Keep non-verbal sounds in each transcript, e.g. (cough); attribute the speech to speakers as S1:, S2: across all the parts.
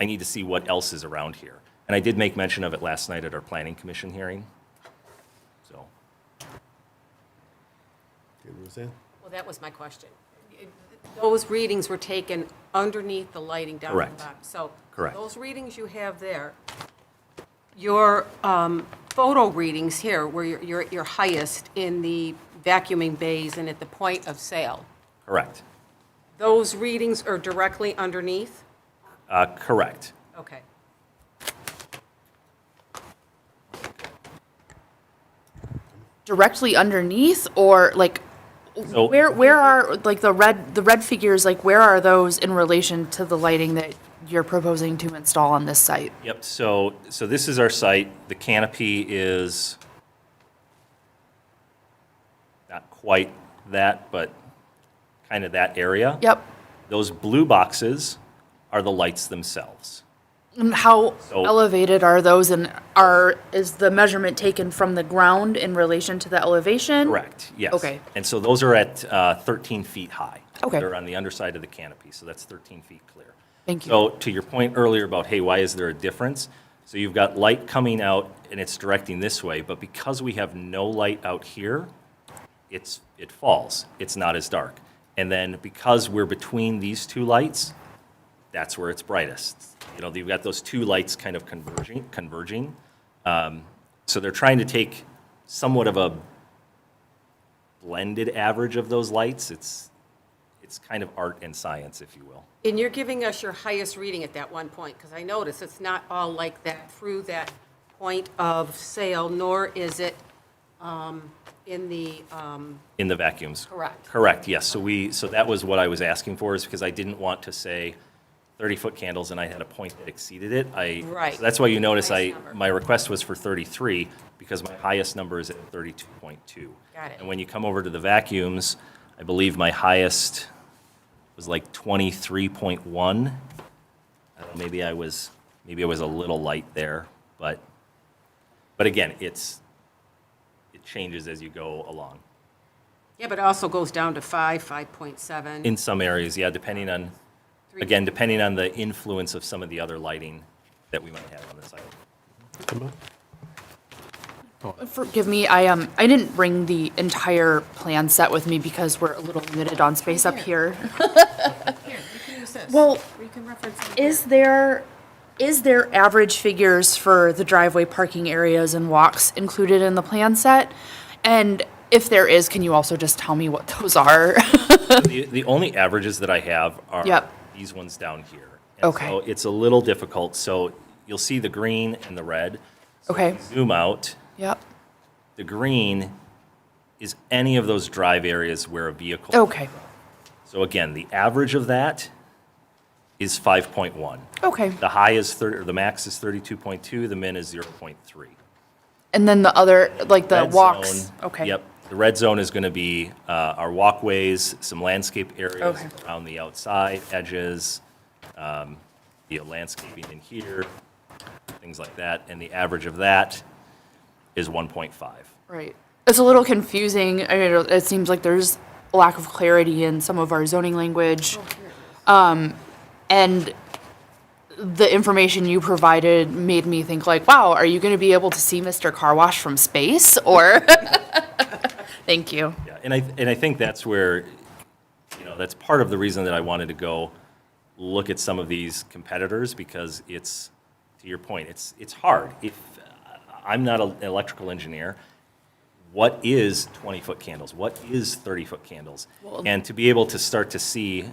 S1: I need to see what else is around here. And I did make mention of it last night at our planning commission hearing. So,
S2: Okay, Roseanne?
S3: Well, that was my question. Those readings were taken underneath the lighting down at
S1: Correct.
S3: the bottom. So
S1: Correct.
S3: those readings you have there, your um, photo readings here were your- your your highest in the vacuuming bays and at the point of sale.
S1: correct,
S3: Those readings are directly underneath?
S1: uh, correct.
S3: Okay.
S4: directly underneath or like
S1: So-
S4: where where are like the red the red figures like where are those in relation to the lighting that you're proposing to install on this site?
S1: Yep, so, so this is our site. The canopy is not quite that, but kind of that area.
S4: Yep.
S1: Those blue boxes are the lights themselves.
S4: And how
S1: So-
S4: elevated are those and are is the measurement taken from the ground in relation to the elevation?
S1: Correct, yes.
S4: Okay.
S1: And so those are at uh, 13 feet high.
S4: Okay.
S1: They're on the underside of the canopy, so that's 13 feet clear.
S4: Thank you.
S1: So to your point earlier about, hey, why is there a difference? So you've got light coming out and it's directing this way, but because we have no light out here, it's, it falls. It's not as dark. And then because we're between these two lights, that's where it's brightest. You know, you've got those two lights kind of converging, converging. Um, So they're trying to take somewhat of a blended average of those lights. It's, it's kind of art and science, if you will.
S3: And you're giving us your highest reading at that one point, because I notice it's not all like that through that point of sale, nor is it um, in the, um,
S1: In the vacuums.
S3: Correct.
S1: Correct, yes. So we, so that was what I was asking for, is because I didn't want to say 30-foot candles, and I had a point that exceeded it. I.
S3: Right.
S1: so That's why you notice I,
S3: Highest number.
S1: my request was for 33, because my highest number is at 32.2.
S3: Got it.
S1: And when you come over to the vacuums, I believe my highest was like 23.1. I don't know, Maybe I was, maybe I was a little light there, but, but again, it's, it changes as you go along.
S3: yeah, but it also goes down to 5, 5.7.
S1: In some areas, yeah, depending on,
S3: Three.
S1: again, depending on the influence of some of the other lighting that we might have on the site.
S2: Emma?
S4: Forgive me, I um I didn't bring the entire plan set with me because we're a little limited on space up (laughs) here. Well,
S3: We can reference it.
S4: Is there, is there average figures for the driveway parking areas and walks included in the plan set? And if there is, can you also just tell me what (laughs) those are?
S1: The, the only averages that I have are
S4: Yep.
S1: these ones down here. And
S4: Okay.
S1: So it's a little difficult, so you'll see the green and the red. So if
S4: Okay.
S1: you Zoom out,
S4: Yep,
S1: the green is any of those drive areas where a vehicle.
S4: okay,
S1: So again, the average of that is 5.1.
S4: okay.
S1: The high is 30, or the max is 32.2, the min is 0.3.
S4: And then the other, like the
S1: red
S4: walks,
S1: zone-
S4: okay.
S1: Yep. The red zone is going to be uh, our walkways, some landscape areas
S4: Okay.
S1: around the outside edges, um, the landscaping in here, things like that. And the average of that is 1.5.
S4: Right. It's a little confusing. I mean, it seems like there's a lack of clarity in some of our zoning language. Um, and the information you provided made me think like, wow, are you going to be able to see Mr. Car Wash from space or? (laughs) Thank you.
S1: Yeah, and I, and I think that's where, you know, that's part of the reason that I wanted to go look at some of these competitors, because it's, to your point, it's, it's hard. If, uh, I'm not an electrical engineer, what is 20-foot candles? What is 30-foot candles? And to be able to start to see.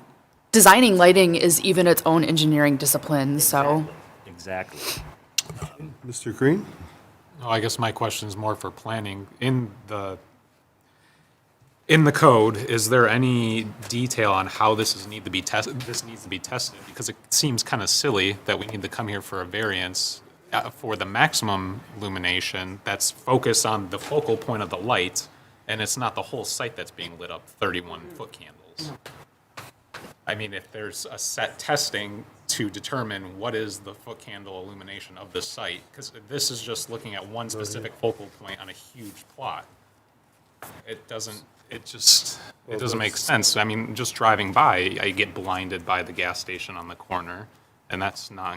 S4: Designing lighting is even its own engineering discipline, so.
S1: Exactly.
S2: Mr. Green?
S5: No, Oh, I guess my question is more for planning. In the, in the code, is there any detail on how this is need to be tested, this needs to be tested? Because it seems kind of silly that we need to come here for a variance uh, for the maximum illumination that's focused on the focal point of the light, and it's not the whole site that's being lit up, 31-foot candles. I mean, if there's a set testing to determine what is the foot candle illumination of the site, because this is just looking at one specific focal point on a huge plot. It doesn't, it just, it doesn't make sense. I mean, just driving by, I get blinded by the gas station on the corner, and that's not